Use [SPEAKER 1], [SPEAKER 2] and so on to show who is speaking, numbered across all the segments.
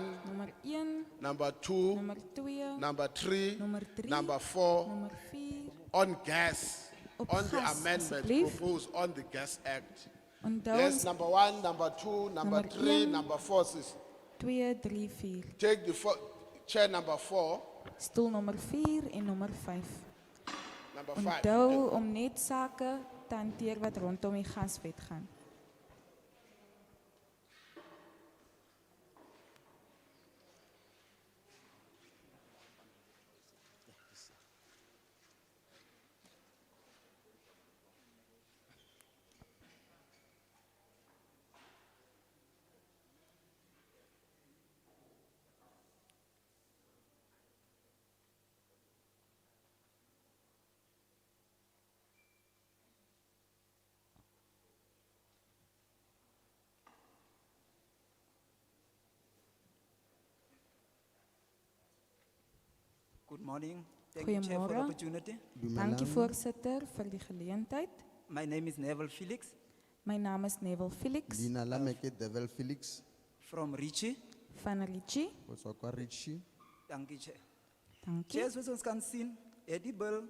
[SPEAKER 1] one,
[SPEAKER 2] nommer 1,
[SPEAKER 1] number two,
[SPEAKER 2] nommer 2,
[SPEAKER 1] number three,
[SPEAKER 2] Nummer drie.
[SPEAKER 1] number four,
[SPEAKER 2] nommer 4.
[SPEAKER 1] on gas,
[SPEAKER 2] Op
[SPEAKER 1] on the
[SPEAKER 2] gas,
[SPEAKER 1] amendment
[SPEAKER 2] asseblief.
[SPEAKER 1] proposed on the Gas Act.
[SPEAKER 2] Onthou
[SPEAKER 1] Yes, nou.
[SPEAKER 2] ons
[SPEAKER 1] number one, number two, number
[SPEAKER 2] Nommer
[SPEAKER 1] three,
[SPEAKER 2] één.
[SPEAKER 1] number four, sis.
[SPEAKER 2] 2, 3, 4.
[SPEAKER 1] Take the fo- chair number four,
[SPEAKER 2] Stoel nommer 4 en nommer 5.
[SPEAKER 1] number five.
[SPEAKER 2] Onthou om net sake te hanteer wat rondom die gaswet gaan.
[SPEAKER 3] Good morning. Thank you, Chair, for the
[SPEAKER 2] Goeiemorgen.
[SPEAKER 3] opportunity.
[SPEAKER 2] Dankie voorsitter vir die geleentheid.
[SPEAKER 3] My name is Neville Felix
[SPEAKER 2] My naam is Neville Felix
[SPEAKER 4] Lina Lameke Devil Felix,
[SPEAKER 3] from Richie.
[SPEAKER 2] van Ricci.
[SPEAKER 4] kutoka kwa Richie.
[SPEAKER 3] Thank you, Chair.
[SPEAKER 2] Dankie.
[SPEAKER 3] Chair, zoals ons kan zien, het die bill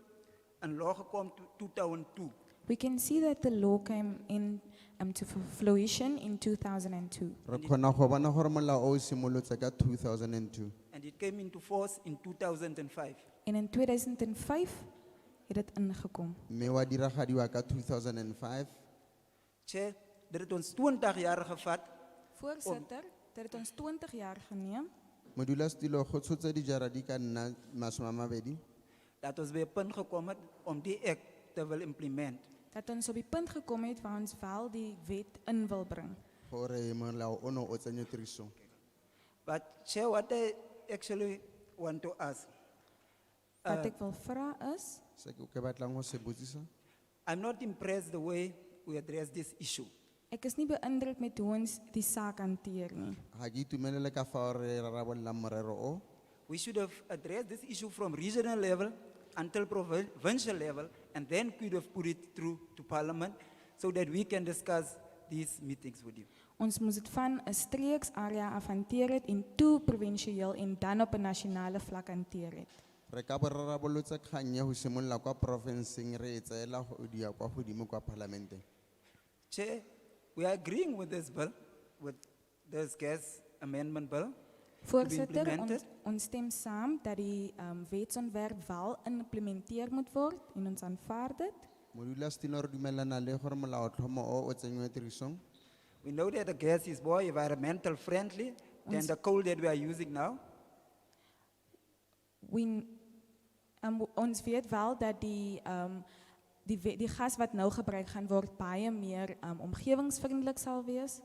[SPEAKER 3] in law gekomen to 2002.
[SPEAKER 2] We can see that the law came in um, to fu- fruition in 2002
[SPEAKER 4] Re khona go bona gore molao o simolotse ka 2002
[SPEAKER 3] And it came into force in 2005.
[SPEAKER 2] en in 2005 het dit ingekom.
[SPEAKER 4] mme wa diragadiwa ka 2005
[SPEAKER 3] Chair, dit het ons 20 jaar gevat
[SPEAKER 2] Voorsitter, dit het ons 20 jaar geneem
[SPEAKER 4] modulasetulo go tshotse dijara di ka nna masome a mabedi
[SPEAKER 3] dat ons bij een punt gekomen het om die act te willen implement.
[SPEAKER 2] dat ons op die punt gekom het waar ons wel die wet in wil bring.
[SPEAKER 4] gore molao ono o tsenye tirisong
[SPEAKER 3] But Chair, what I actually want to ask,
[SPEAKER 2] Wat ek wil vra is,
[SPEAKER 4] se ke ke batlang go se botsisa
[SPEAKER 3] I'm not impressed the way we address this issue.
[SPEAKER 2] ek is nie beïndruk met hoe ons die saak hanteer nie.
[SPEAKER 4] ga ke itumelele ka fao re rarabololang morero o
[SPEAKER 3] We should have addressed this issue from regional level until provincial level and then could have put it through to parliament so that we can discuss these meetings with you.
[SPEAKER 2] Ons moes dit van 'n streeksarea af hanteer het en toe provinsieel en dan op 'n nasionale vlak hanteer het.
[SPEAKER 4] re ka bo rarabolotse kgang ya go simolola kwa porofenseng re e tseela go dia kwa godimo kwa parlamenteng
[SPEAKER 3] Chair, we are agreeing with this bill, with this gas amendment bill.
[SPEAKER 2] Voorsitter, ons,
[SPEAKER 3] implemented?
[SPEAKER 2] ons stem saam dat die um, wetsontwerp wel geïmplementeer moet word en ons aanvaar dit.
[SPEAKER 4] modulasetulo re dumelana le gore molaotlhomo o o tsenngwe tirisong
[SPEAKER 3] We know that the gas is more environmental friendly than the coal that we are using now.
[SPEAKER 2] We, um, ons weet wel dat die, um, die, we- die gas wat nou gebruik gaan word baie meer um, omgewingsvriendelik sal wees.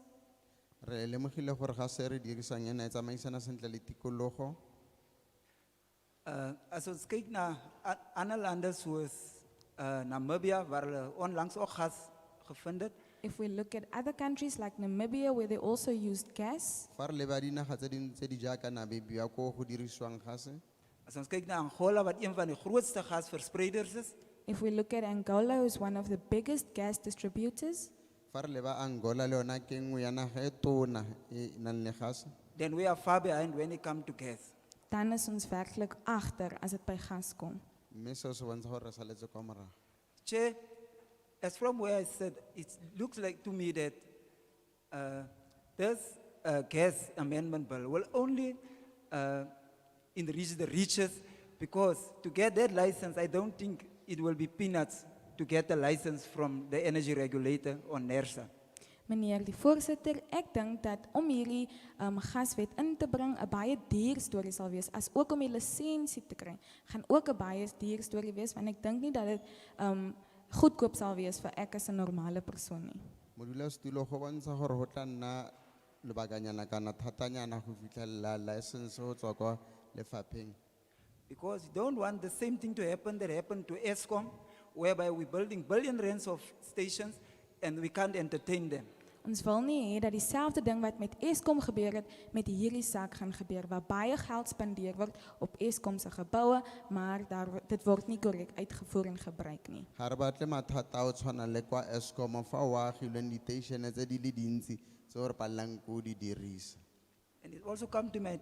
[SPEAKER 4] re lemogile gore ga se re dirisang ena e tsamaisana sentle le tikologo
[SPEAKER 3] Uh, as ons kyk na a- ander lande soos uh, Namibia waar hulle onlangs ook gas gevind het,
[SPEAKER 2] If we look at other countries like Namibia where they also used gas,
[SPEAKER 4] fa re leba dinaga tse dingwe tse di jaaka nabebia ko go dirisiwang gase
[SPEAKER 3] As ons kyk na Angola wat een van die grootste gasverspreiders is,
[SPEAKER 2] if we look at Angola who's one of the biggest gas distributors,
[SPEAKER 4] fa re leba angola le yona ke nngwe ya naga e tona e e nang le gase
[SPEAKER 3] then we are far behind when it comes to gas.
[SPEAKER 2] dan is ons werklik agter as dit by gas kom.
[SPEAKER 4] mme seo se bontsha gore re saletse kwa morago
[SPEAKER 3] Chair, as from where I said, it looks like to me that uh, this uh, gas amendment bill will only uh, enrich the richest because to get that license, I don't think it will be peanuts to get a license from the energy regulator or E NERSA.
[SPEAKER 2] Meneer die voorsitter, ek dink dat om hierdie um, gaswet in te bring 'n baie duur storie sal wees, as ook om die lisensie te kry, gaan ook 'n baie duur storie wees want ek dink nie dat dit um, goedkoop sal wees vir ek as 'n normale persoon nie.
[SPEAKER 4] modulasetulo go bontsha gore go tla nna lobakanyana kana thatanyana go fitlhelela license go tswa kwa lefapheng
[SPEAKER 3] Because you don't want the same thing to happen that happened to ESCOM, whereby we're building billion rands of stations and we can't entertain them.
[SPEAKER 2] Ons wil nie hê dat dieselfde ding wat met Eskom gebeur het, met hierdie saak gaan gebeur waar baie geld spandeer word op Eskom se geboue, maar daar wo- dit word nie korrek uitgevoer en gebruik nie.
[SPEAKER 4] ga re batle mathata a o tshwana le kwa escom fa o agilweng diteišene tse di le dintsi tse o re palelang ko o di dirisa
[SPEAKER 3] And it also come to my